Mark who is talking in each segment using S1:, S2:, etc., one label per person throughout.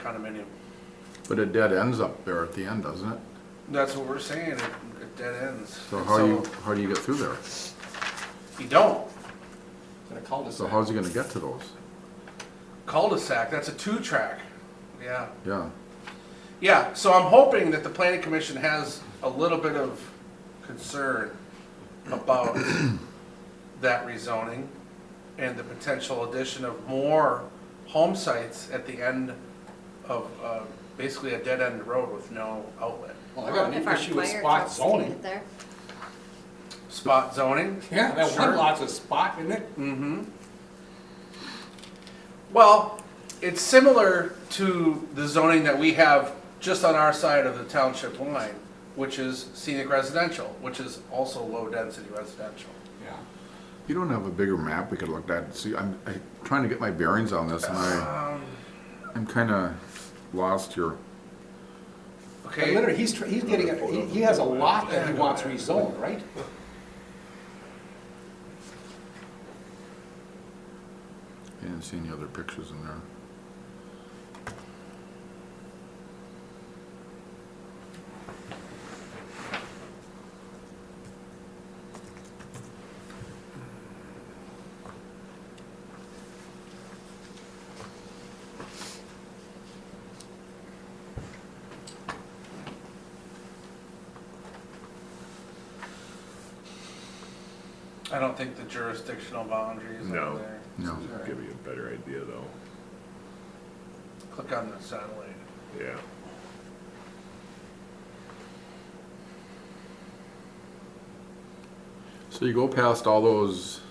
S1: condominium.
S2: But it dead ends up there at the end, doesn't it?
S1: That's what we're saying, it, it dead ends.
S2: So how you, how do you get through there?
S1: You don't.
S3: in a cul-de-sac.
S2: So how's he gonna get to those?
S1: Cul-de-sac, that's a two-track. Yeah.
S2: Yeah,
S1: Yeah, so I'm hoping that the planning commission has a little bit of concern about that rezoning and the potential addition of more home sites at the end of, uh, basically a dead-end road with no outlet.
S3: Well, I got
S4: If
S3: an
S4: our
S3: issue with
S4: fire
S3: spot
S4: trucks can
S3: zoning.
S4: get there.
S1: Spot zoning?
S3: Yeah, that
S1: Sure.
S3: one lot's a spot, isn't it?
S1: Mm-hmm. Well, it's similar to the zoning that we have just on our side of the township line, which is scenic residential, which is also low-density residential.
S3: Yeah.
S2: you don't have a bigger map we could look at, and see, I'm, I'm trying to get my bearings on this and I,
S1: Um.
S2: I'm kinda lost here.
S3: But
S1: Okay,
S3: literally, he's, tr- he's getting, a- he- he has a lot that he wants rezoned, right?
S2: I didn't see any other pictures in there.
S1: I don't think the jurisdictional boundaries are
S5: No.
S1: there.
S2: No.
S5: Give you a better idea though,
S1: Click on the satellite.
S5: yeah.
S2: So you go past all those,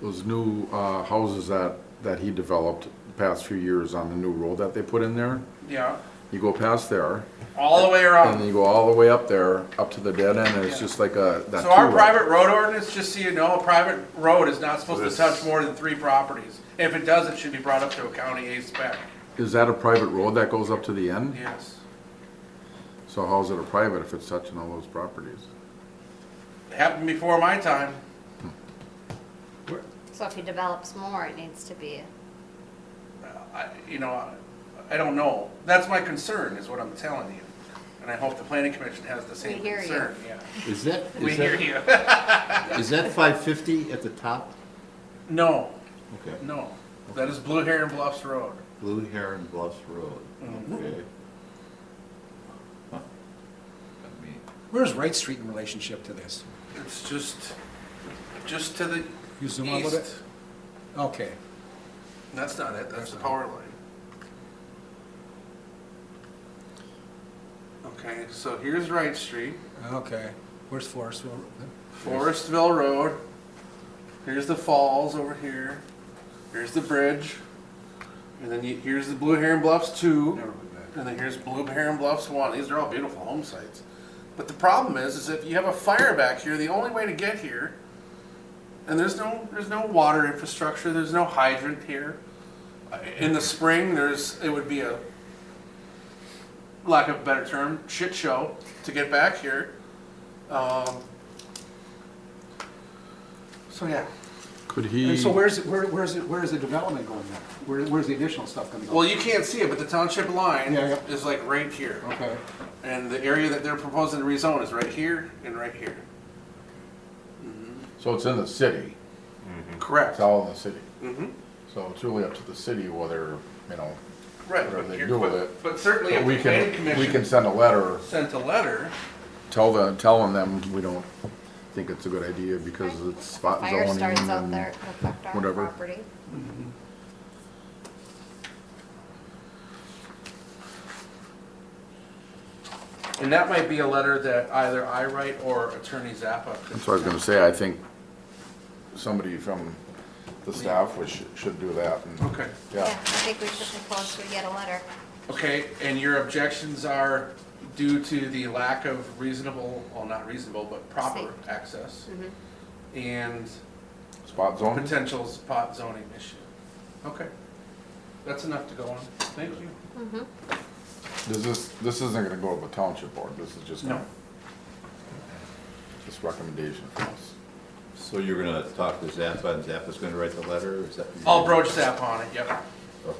S2: those new, uh, houses that, that he developed the past few years on the new road that they put in there.
S1: Yeah,
S2: You go past there,
S1: all the way
S2: and
S1: around.
S2: then you go all the way up there, up to the dead end, and it's
S1: Yeah.
S2: just like a, that
S1: So our
S2: two-way.
S1: private road ordinance, just so you know, a private road is not supposed to
S5: This-
S1: touch more than three properties. If it does, it should be brought up to a county A spec.
S2: Is that a private road that goes up to the end?
S1: Yes.
S2: So how's it a private if it's touching all those properties?
S1: Happened before my time.
S4: So if he develops more, it needs to be,
S1: I, you know, I- I don't know. That's my concern, is what I'm telling you. And I hope the planning commission has the same
S4: hear you.
S1: concern, yeah.
S6: Is that,
S1: We
S6: is
S1: hear
S6: that,
S1: you.
S6: is that five fifty at the top?
S1: No,
S6: Okay,
S1: no. That is Blue Heron Bluffs Road.
S6: Blue Heron Bluffs Road, okay. Huh. Got me.
S3: Where's Wright Street in relationship to this?
S1: It's just, just to the
S3: You zoom out a little
S1: east.
S3: bit? Okay.
S1: That's not it, that's the power line. Okay, so here's Wright Street,
S3: Okay, where's Forest Road?
S1: Forestville Road. Here's the falls over here. Here's the bridge. And then you, here's the Blue Heron Bluffs two. And then here's Blue Heron Bluffs one. These are all beautiful home sites. But the problem is, is if you have a fire back here, the only way to get here, and there's no, there's no water infrastructure, there's no hydrant here. Uh, In the spring, there's, it would be a, lack of a better term, shit show to get back here. Um, so yeah.
S2: Could he,
S3: And so where's, where, where's, it- where's the development going then? Where, where's the additional stuff coming?
S1: Well, you can't see it, but the township line
S3: Yeah, yeah.
S1: is like right here.
S3: Okay,
S1: And the area that they're proposing to rezone is right here and right here.
S2: so it's in the city,
S1: Correct.
S2: it's all in the city.
S1: Mhm.
S2: So it's really up to the city whether, you know,
S1: Right,
S2: whatever
S1: but
S2: they
S1: here,
S2: do with
S1: but,
S2: it.
S1: but certainly
S2: but
S1: if the
S2: we
S1: planning
S2: can, we can
S1: commission
S2: send a letter,
S1: sent a letter,
S2: tell the, telling them we don't think it's a good idea because it's spot
S4: fire
S2: zoning
S4: starts out
S2: and-
S4: there, it'll affect our
S2: whatever.
S4: property.
S1: and that might be a letter that either I write or Attorney Zappa. could
S2: That's what I was gonna say, I think somebody from the staff was, should do that and.
S1: send. Okay,
S4: Yeah, I
S2: Yeah,
S4: think we should propose we get a letter.
S1: okay, and your objections are due to the lack of reasonable, well, not reasonable, but proper
S4: Safe.
S1: access
S4: Mhm.
S1: and
S2: spot zoning.
S1: potential spot zoning issue. Okay, that's enough to go on, thank you.
S2: This is, this isn't gonna go to the township board, this is just.
S1: No.
S2: Just recommendation from us.
S6: So you're
S1: Oh,
S6: gonna talk to Zappa and Zappa's gonna write the letter, or is that?
S1: I'll broach Zappa on it, yep.
S6: Okay.